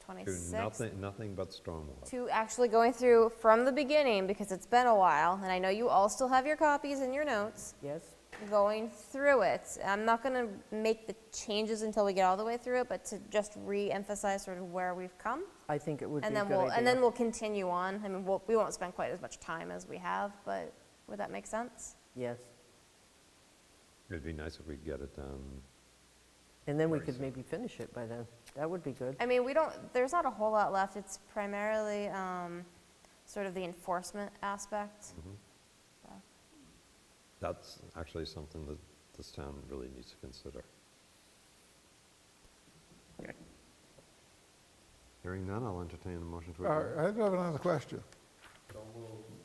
to 26th, nothing, nothing but stormwater. to actually going through from the beginning, because it's been a while, and I know you all still have your copies and your notes, Yes? going through it. I'm not gonna make the changes until we get all the way through it, but to just re-emphasize sort of where we've come. I think it would be a And good then idea. we'll, and then we'll continue on. I mean, we'll- we won't spend quite as much time as we have, but would that make sense? Yes. It'd be nice if we could get it done. And then we Very could soon. maybe finish it by then. That would be good. I mean, we don't, there's not a whole lot left. It's primarily um, sort of the enforcement aspect. That's actually something that this town really needs to consider. Hearing none, I'll entertain a motion to All adjourn. right, Uh, I do have another question.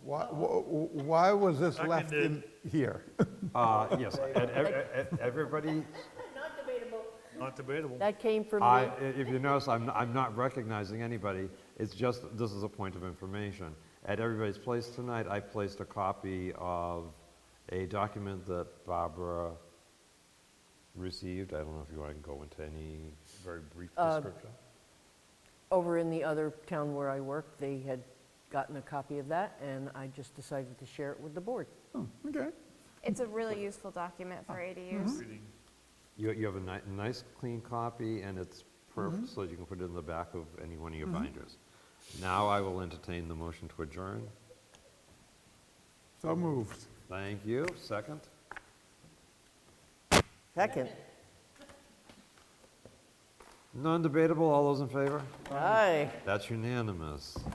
Why, wh- wh- why was this left in here? Uh, Yes, and ev- ev- everybody, Not debatable. That came from I- me. if you notice, I'm I'm not recognizing anybody, it's just, this is a point of information. At everybody's place tonight, I placed a copy of a document that Barbara received. I don't know if you want to go into any very brief description. Over in the other town where I work, they had gotten a copy of that, and I just decided to share it with the board. Okay. It's a really useful document for Mm-hmm. ADUs. You you have a ni- nice, clean copy, and it's perfect, so you can put it in the back of any one of your binders. Now I will entertain the motion to adjourn. So moved. Thank you. Second? Second. Non-debatable, all those in favor? Aye. That's unanimous.